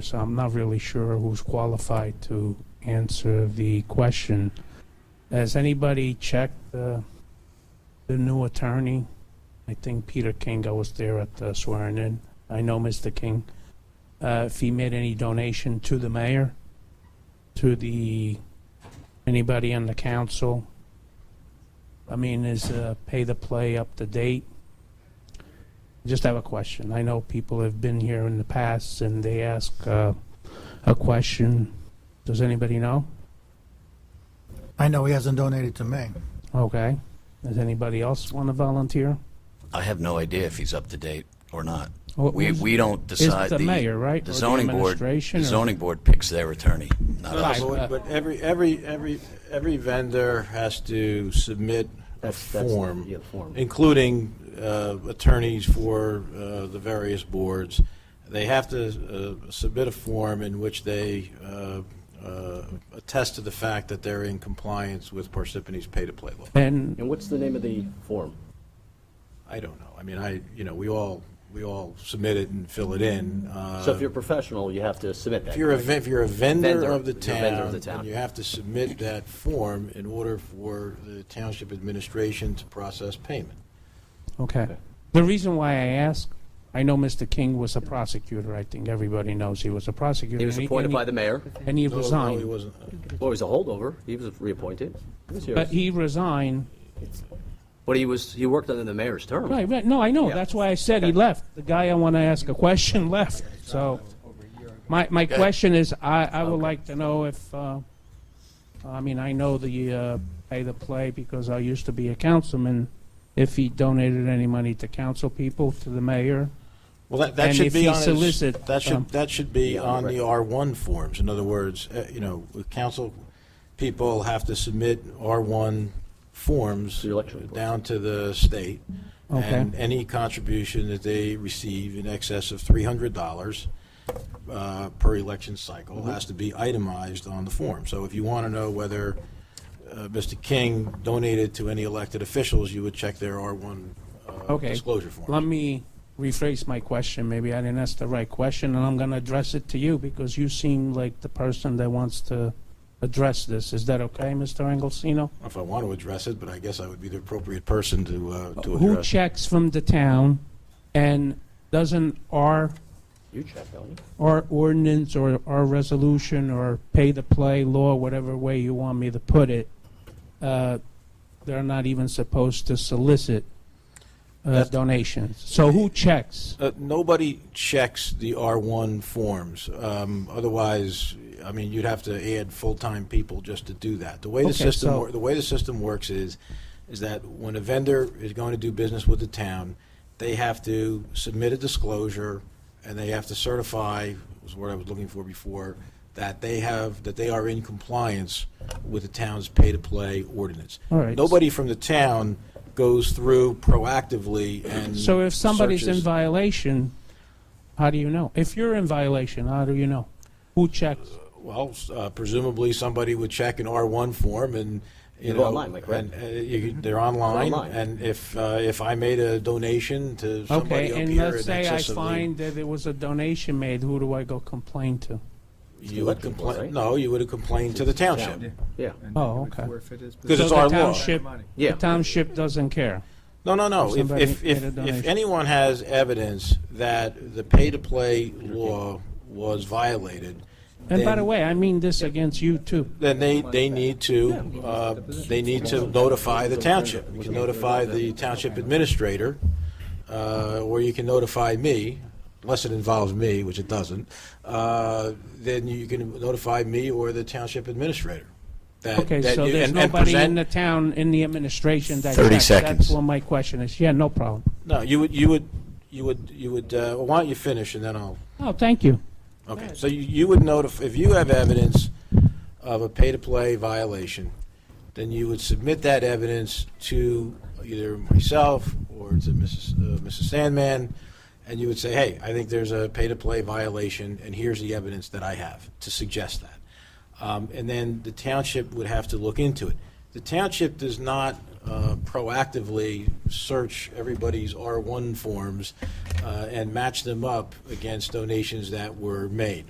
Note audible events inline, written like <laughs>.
So I'm not really sure who's qualified to answer the question. Has anybody checked uh, the new attorney? I think Peter King, I was there at the swearing in. I know Mr. King. Uh, If he made any donation to the mayor, to the, anybody on the council? I mean, is uh, pay the play up to date? Just have a question. I know people have been here in the past and they ask uh, a question. Does anybody know? I know he hasn't donated to me. Okay. Does anybody else want to volunteer? I have no idea if he's up to date or not. Oh, Well, We, is- we don't decide. It's the mayor, right? The Or zoning board, administration the or- zoning board picks their attorney, not Right. us. uh, But but every, every, every, every vendor has to submit a That's- that's- form, yeah, form. including uh, attorneys for uh, the various boards. They have to uh, submit a form in which they uh, uh, attest to the fact that they're in compliance with Parsippany's pay-to-play law. And And what's the name of the form? I don't know. I mean, I, you know, we all, we all submit it and fill it in. uh, So if you're professional, you have to submit that. If you're a, ve- if you're a vendor Vendor, of the if you're a vendor of town, the then town. you have to submit that form in order for the township administration to process payment. okay. The reason why I ask, I know Mr. King was a prosecutor. I think everybody knows he was a prosecutor. He was and appointed and by the mayor, And he No, no, he resigned. wasn't. well, he was a holdover, he was reappointed. He was here. But he resigned. But he was, he worked under the mayor's term. Right, right. No, I know. Yeah. That's why I said he left. The guy I want to ask a question <laughs> left. So my, my question is, I, I would like to know if, uh, I mean, I know the, uh, pay the play because I used to be a councilman, if he donated any money to council people, to the mayor. Well, that, And that if should he be on his, solicit, that um, should, that should be Yeah, on the right. R1 forms. In other words, uh, you know, the council people have to submit R1 forms The election reports. down to the state. Okay. And any contribution that they receive in excess of $300 uh, per election cycle Mm-hmm. has to be itemized on the form. So if you want to know whether uh, Mr. King donated to any elected officials, you would check their R1 uh, Okay. disclosure form. Let me rephrase my question. Maybe I didn't ask the right question, and I'm going to address it to you because you seem like the person that wants to address this. Is that okay, Mr. Angelsino? if I want to address it, but I guess I would be the appropriate person to, uh, to Who address. it. checks from the town and doesn't our, You check, don't you? our ordinance or our resolution or pay to play law, whatever way you want me to put it, uh, they're not even supposed to solicit uh, That's- donations. So who checks? Uh, nobody checks the R1 forms. Um, otherwise, I mean, you'd have to add full-time people just to do that. The way the Okay, system, so- wor- the way the system works is, is that when a vendor is going to do business with the town, they have to submit a disclosure and they have to certify, was what I was looking for before, that they have, that they are in compliance with the town's pay-to-play ordinance. All right. Nobody from the town goes through proactively and So if somebody's in Mm, searches. violation, how do you know? If you're in violation, how do you know? Who checks? Well, s- uh, presumably somebody would check an R1 form and, you They're know. online, Mike, right? and, uh, you could- They're online. online. And if, uh, if I made a donation to somebody Okay, up and here in let's say I excess of the. find that there was a donation made, who do I go complain to? You would People, right? complain, no, you would have complained to the township. Yeah, And Oh, would okay. forfeit his Because So it's the our law. township- Money. yeah. The township doesn't care. No, no, no. Or If, somebody if, if, made a if donation. anyone has evidence that the pay-to-play law was violated. And by then- the way, I mean this against you too. Then they, they need to, uh, they need to notify the township. You can notify the township administrator, uh, or you can notify me, unless it involves me, which it doesn't. Uh, Then you can notify me or the township administrator. that- Okay, that so you- there's and- and nobody in present- the town, in the administration that 30 checks. That's seconds. what my question is. Yeah, no problem. No, you would, you would, you would, you would, uh, why don't you finish, and then I'll Oh, thank you. Okay, so you- you would notify, if you have evidence of a pay-to-play violation, then you would submit that evidence to either myself or to Mrs. uh, Mrs. Sandman, and you would say, hey, I think there's a pay-to-play violation, and here's the evidence that I have to suggest that. Um, And then the township would have to look into it. The township does not uh, proactively search everybody's R1 forms uh, and match them up against donations that were made.